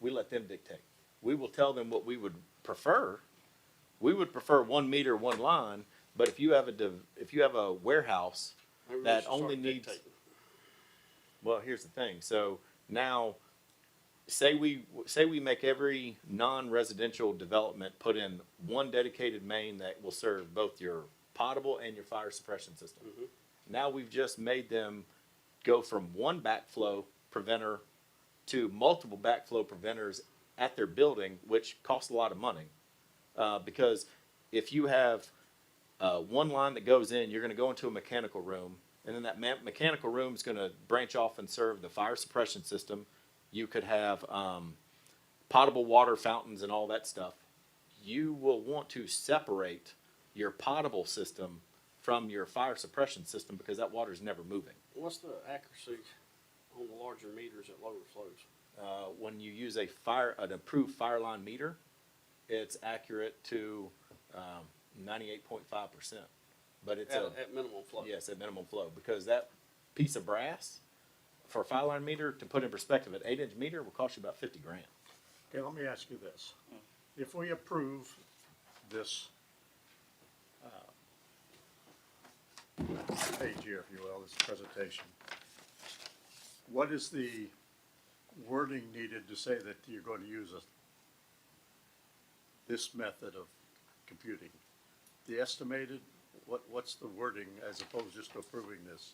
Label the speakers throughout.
Speaker 1: we let them dictate. We will tell them what we would prefer. We would prefer one meter, one line, but if you have a, div- if you have a warehouse
Speaker 2: Maybe we
Speaker 1: that
Speaker 2: should start
Speaker 1: only needs,
Speaker 2: dictating.
Speaker 1: well, here's the thing, so now, say we, say we make every non-residential development put in one dedicated main that will serve both your potable and your fire suppression system. Now we've just made them go from one backflow preventer to multiple backflow preventers at their building, which costs a lot of money. Uh, because if you have uh, one line that goes in, you're going to go into a mechanical room, and then that ma- mechanical room is going to branch off and serve the fire suppression system. You could have um, potable water fountains and all that stuff. You will want to separate your potable system from your fire suppression system because that water is never moving.
Speaker 2: What's the accuracy on the larger meters at lower flows?
Speaker 1: Uh, when you use a fire, an approved fire line meter, it's accurate to um, 98.5%. But it's
Speaker 2: At,
Speaker 1: a,
Speaker 2: at minimum flow?
Speaker 1: Yes, at minimum flow, because that piece of brass for a fire line meter, to put in perspective, an eight inch meter will cost you about fifty grand.
Speaker 3: Okay, let me ask you this. If we approve this, uh, page here, if you will, this presentation, what is the wording needed to say that you're going to use a, this method of computing? The estimated, what, what's the wording as opposed just to approving this?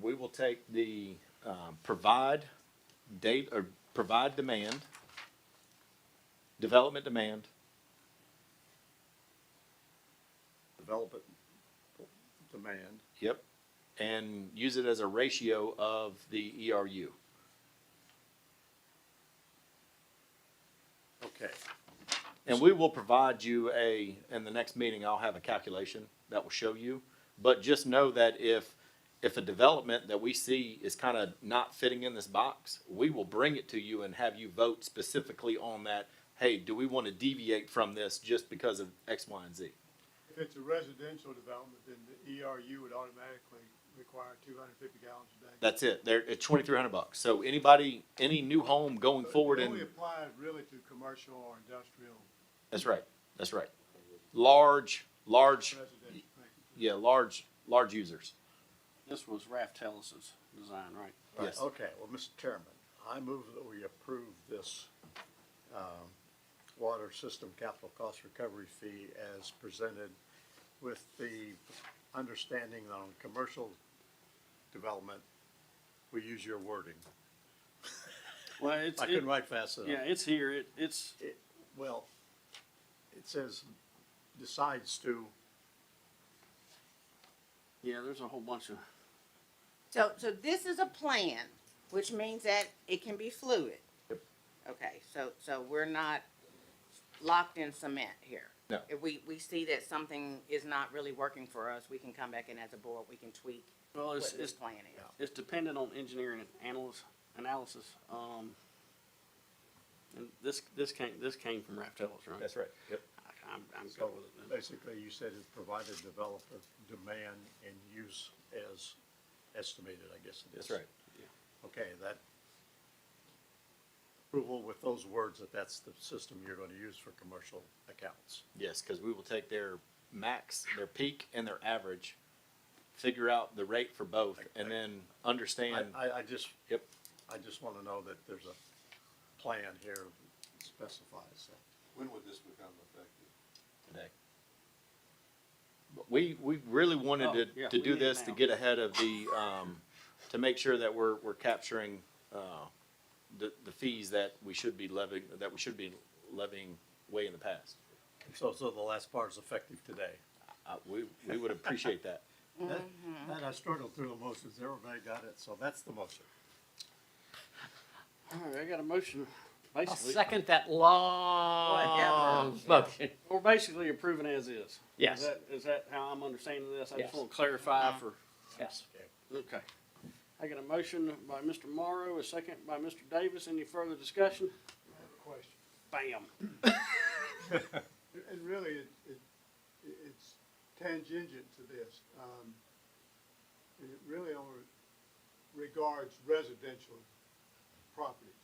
Speaker 1: We will take the, um, provide date, or provide demand, development demand,
Speaker 3: Development demand,
Speaker 1: yep, and use it as a ratio of the E ERU.
Speaker 3: okay.
Speaker 1: And we will provide you a, in the next meeting, I'll have a calculation that will show you. But just know that if, if a development that we see is kind of not fitting in this box, we will bring it to you and have you vote specifically on that. Hey, do we want to deviate from this just because of X, Y, and Z?
Speaker 4: If it's a residential development, then the ERU would automatically require two hundred and fifty gallons a day.
Speaker 1: That's it. They're, it's twenty-three hundred bucks. So anybody, any new home going
Speaker 4: So it
Speaker 1: forward
Speaker 4: Only
Speaker 1: and,
Speaker 4: applies really to commercial or industrial
Speaker 1: that's right, that's right. Large, large,
Speaker 4: residential. thank you.
Speaker 1: yeah, large, large users.
Speaker 2: This was Raft Tellis's design, right?
Speaker 3: Right,
Speaker 1: Yes.
Speaker 3: Okay, well, Mr. Chairman, I move that we approve this um, water system capital cost recovery fee as presented with the understanding that on commercial development, we use your wording.
Speaker 2: Well, it's,
Speaker 3: I
Speaker 2: it-
Speaker 3: couldn't write fast
Speaker 2: yeah,
Speaker 3: enough.
Speaker 2: it's here, it, it's,
Speaker 3: It- Well, it says decides to,
Speaker 2: yeah, there's a whole bunch of,
Speaker 5: So, so this is a plan, which means that it can be fluid. Okay, so, so we're not locked in cement here.
Speaker 1: No.
Speaker 5: If we, we see that something is not really working for us, we can come back in as a board, we can tweak
Speaker 2: well,
Speaker 5: what
Speaker 2: it's,
Speaker 5: this
Speaker 2: it's,
Speaker 5: plan is.
Speaker 2: it's dependent on engineering and analysis, analysis, um, and this, this came, this came from Raft Tellis, right?
Speaker 1: right. Yep.
Speaker 2: I- I'm, I'm
Speaker 3: so
Speaker 2: good with it. then.
Speaker 3: basically you said it provided developer demand and use as estimated, I guess it is.
Speaker 1: That's right.
Speaker 3: Okay, that approval with those words that that's the system you're going to use for commercial accounts.
Speaker 1: Yes, because we will take their max, their peak, and their average, figure out the rate for both, and then
Speaker 3: I,
Speaker 1: understand.
Speaker 3: I, I just,
Speaker 1: Yep.
Speaker 3: I just want to know that there's a plan here that specifies that.
Speaker 6: When would this become effective?
Speaker 1: today. But We, we really
Speaker 2: Oh,
Speaker 1: wanted
Speaker 2: yeah,
Speaker 1: to, to
Speaker 2: we
Speaker 1: do
Speaker 2: need it
Speaker 1: this to
Speaker 2: now.
Speaker 1: get ahead of the, um, to make sure that we're, we're capturing, uh, the, the fees that we should be levying, that we should be levying way in the past.
Speaker 3: So, so the last part is effective today.
Speaker 1: Uh, we, we would appreciate that.
Speaker 3: That, that I struggled through the motions, everybody got it, so that's the motion.
Speaker 2: All right, I got a motion,
Speaker 7: I'll
Speaker 2: basically,
Speaker 7: second that long motion.
Speaker 2: we're basically approving as is. Is
Speaker 7: Yes,
Speaker 2: that, is that how I'm understanding this? I just
Speaker 7: Yes. Uh-huh.
Speaker 2: want to clarify for,
Speaker 7: yes.
Speaker 2: okay. I got a motion by Mr. Morrow, a second by Mr. Davis. Any further discussion?
Speaker 4: I have a question.
Speaker 2: Bam.
Speaker 4: And- And really, it, it, it- it's tangential to this. Um, and it really only regards residential properties.